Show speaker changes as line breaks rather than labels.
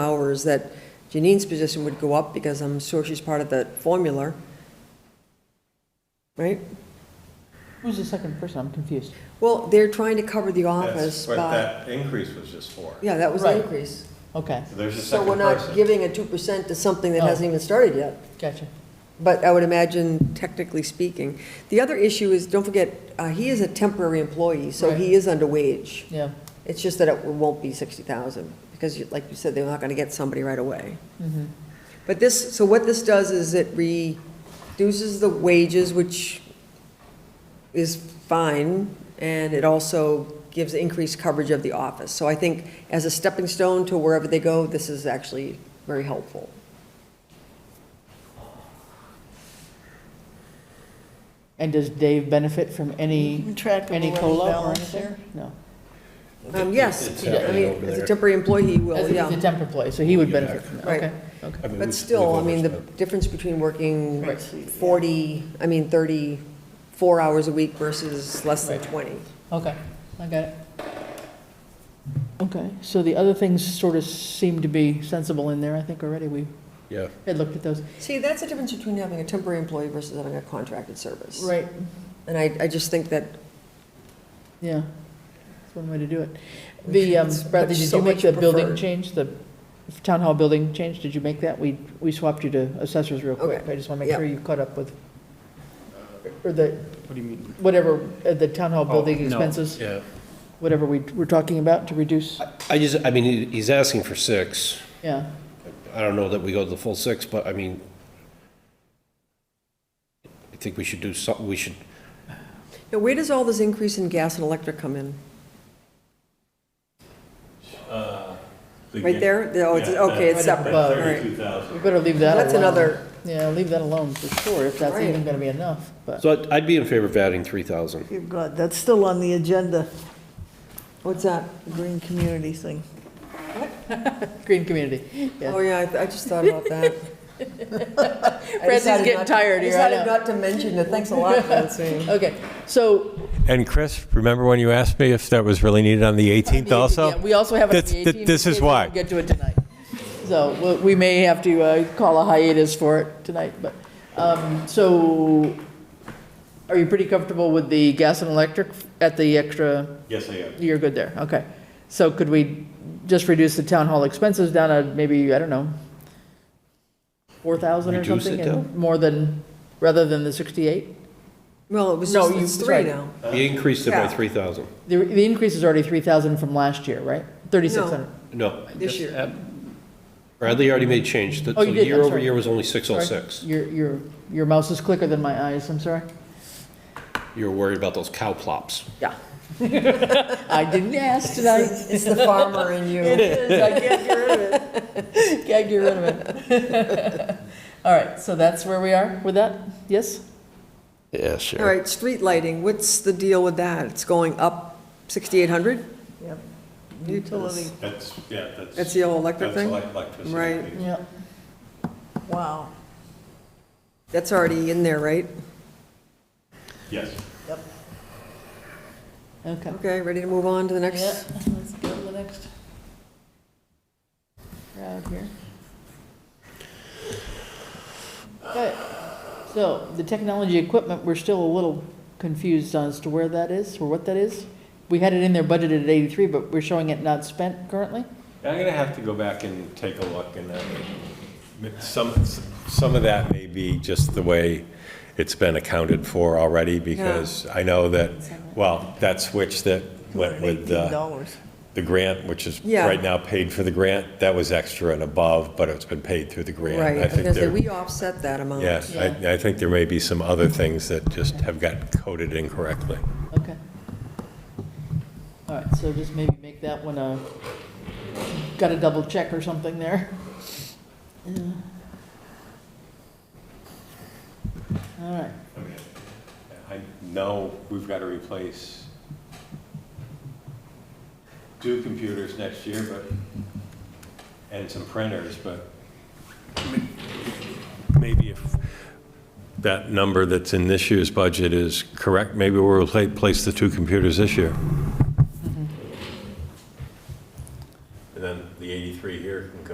is that Janine's position would go up because I'm sure she's part of that formula. Right?
Who's the second person? I'm confused.
Well, they're trying to cover the
That's
office
what
by,
that increase was just for.
yeah, that was the
Right.
increase.
Okay,
So There's a
So we're
second
not
person.
giving a two percent to something that
Oh.
hasn't even started yet.
gotcha.
But I would imagine technically speaking. The other issue is, don't forget, uh, he is a temporary employee, so
Right.
he is under wage.
Yeah.
It's just that it won't be 60,000, because you- like you said, they're not going to get somebody right away.
Mm-hmm.
But this, so what this does is it reduces the wages, which is fine, and it also gives increased coverage of the office. So I think as a stepping stone to wherever they go, this is actually very helpful.
And does Dave benefit from any,
Track of
any
the
COLA or
balance
anything? No.
there.
Um, Yes,
It's
I
happening
mean,
over
as a
there.
temporary employee, he
As
will,
if he's a
yeah.
temp employee, so he would
Yeah.
benefit from that,
Right.
okay, okay.
I mean,
But
we've-
still, I
we've
mean, the
overspent.
difference between working
Right.
40, I mean, 34 hours a week versus less than
Right.
20.
Okay, I got it. Okay, so the other things sort of seem to be sensible in there, I think already we
Yeah,
had looked at those.
See, that's the difference between having a temporary employee versus having a contracted service.
Right.
And I, I just think that
Yeah, that's one way to do it. The, um,
It's
Bradley,
much-
did
so
you make
much
the building
preferred.
change, the town hall building change, did you make that? We, we swapped you to assessors real quick,
Okay.
I just want to make
Yep.
sure you caught up with, or the,
What do you mean? Oh,
whatever, uh, the town hall building
no.
expenses,
yeah.
whatever we were talking about to reduce,
Uh,
I just, I mean, he- he's asking for six.
yeah.
I don't know that we go to the full six, but I mean, I think we should do something, we should,
Now, where does all this increase in gas and electric come in? Right there? The- Oh, it's,
Yeah,
okay,
that-
it's
Right
separate, all
above.
right.
Thirty-two thousand.
We better leave that alone.
That's another,
Yeah, leave that alone for sure, if that's
Right.
even gonna be enough, but,
so I'd- I'd be in favor of adding three thousand.
Dear God, that's still on the agenda,
what's that?
the green community thing.
green community, yeah.
Oh, yeah, I- I just thought about that. I decided
getting
not-
tired here, I
I decided
know.
not to mention it. Thanks a lot, Francine.
Okay, so.
And Chris, remember when you asked me if that was really needed on the eighteenth
Yeah, We also have it on
That's-
the 18th.
that- this is
We
why.
didn't Get to it tonight. So we'll- we may have to uh, call a hiatus for it tonight, but, um, so are you pretty comfortable with the gas and electric at the extra,
Yes, I am.
you're good there, okay. So could we just reduce the town hall expenses down to maybe, I don't know, 4,000 or
Reduce it
something?
down?
and More than, rather than the 68?
Well, it was
No,
just,
you-
it's three
right.
now.
He increased it by
Yeah.
three thousand.
The, the increase is already 3,000 from last year, right? 3,600?
No,
This year.
Bradley already made change. The-
Oh, you
so
did, I'm
Year over
sorry.
year was only six oh
Sorry.
six.
Your, your, your mouse is quicker than my eyes, I'm sorry.
You were worried about those cow plops.
Yeah. I didn't ask tonight.
It's it's the farmer in you.
is, I can't get rid of it. Can't get rid of it. All right, so that's where we are with that, yes?
Yeah,
All right, street lighting, what's the deal with that? It's going up 6,800?
Yep. Utility,
That's, yeah, that's.
That's the old electric
that's
thing?
elec- electricity.
Right.
Yeah.
wow.
That's already in there, right?
Yes.
Okay.
Okay, ready to move on to the
Yeah,
next?
let's go to the next. Crowd here. Okay, so the technology equipment, we're still a little confused as to where that is, or what that is. We had it in there budgeted at eighty-three, but we're showing it not spent currently?
I'm gonna have to go back and take a look and then, some, some of that may be just the way it's been accounted for already because I know that, well, that switch that went with uh, the.
$18.
the grant, which is
Yeah.
right now paid for the grant, that was extra and above, but it's been paid through the grant.
Right, I
I
was
think
gonna say,
there,
we offset that amount.
yeah, I, I think there may be some other things that just have got coded incorrectly.
Okay. All right, so just maybe make that one a, got a double check or something there. Yeah. All right,
I know we've got to replace two computers next year, but, and some printers, but maybe if that number that's in this year's budget is correct, maybe we'll replace the two computers this year.